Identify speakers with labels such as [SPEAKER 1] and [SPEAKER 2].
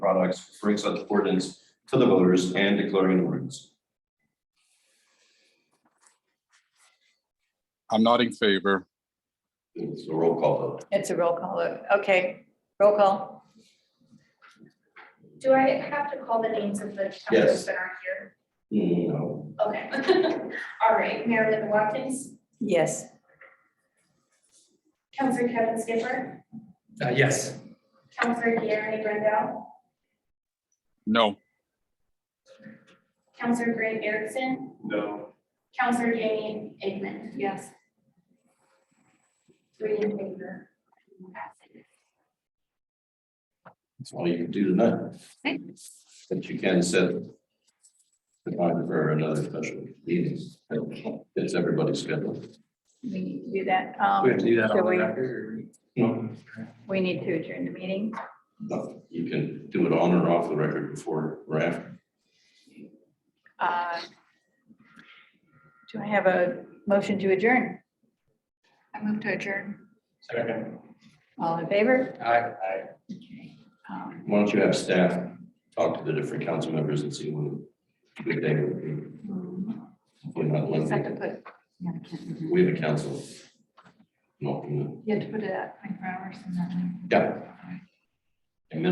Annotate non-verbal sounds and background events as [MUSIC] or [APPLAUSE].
[SPEAKER 1] products, referring such ordinance to the voters and declaring an ordinance.
[SPEAKER 2] I'm not in favor.
[SPEAKER 1] It's a roll call vote.
[SPEAKER 3] It's a roll call. vote. Okay, roll call.
[SPEAKER 4] Do I have to call the names of the
[SPEAKER 1] Yes.
[SPEAKER 4] councilors that aren't here?
[SPEAKER 1] No.
[SPEAKER 4] Okay. [LAUGHS] All right, Mayor Lynn Watkins,
[SPEAKER 3] Yes.
[SPEAKER 4] Counselor Kevin Skipper,
[SPEAKER 5] Uh, yes.
[SPEAKER 4] Counselor Gary Brendel,
[SPEAKER 2] No,
[SPEAKER 4] Counselor Greg Erickson,
[SPEAKER 1] No.
[SPEAKER 4] Counselor Jamie Aikman. Yes. Three in favor.
[SPEAKER 1] That's all you can do tonight. But you can set the time for another special meeting. It's everybody's schedule.
[SPEAKER 3] We need to do that. Um,
[SPEAKER 5] We have to do that
[SPEAKER 3] So
[SPEAKER 5] on the
[SPEAKER 3] we-
[SPEAKER 5] record.
[SPEAKER 1] No,
[SPEAKER 3] We need to adjourn the meeting.
[SPEAKER 1] no, You can do it on or off the record before or after.
[SPEAKER 3] Uh, Do I have a motion to adjourn?
[SPEAKER 6] I move to adjourn.
[SPEAKER 5] or- Second.
[SPEAKER 3] All in favor?
[SPEAKER 5] Aye. Aye.
[SPEAKER 3] Um,
[SPEAKER 1] Why don't you have staff talk to the different council members and see when the day would be. Hopefully not
[SPEAKER 6] You just have to
[SPEAKER 1] Monday.
[SPEAKER 6] put, yeah, I can't remember.
[SPEAKER 1] We have a council. Not,
[SPEAKER 6] you have to put it at twenty-four hours and then.
[SPEAKER 1] yeah,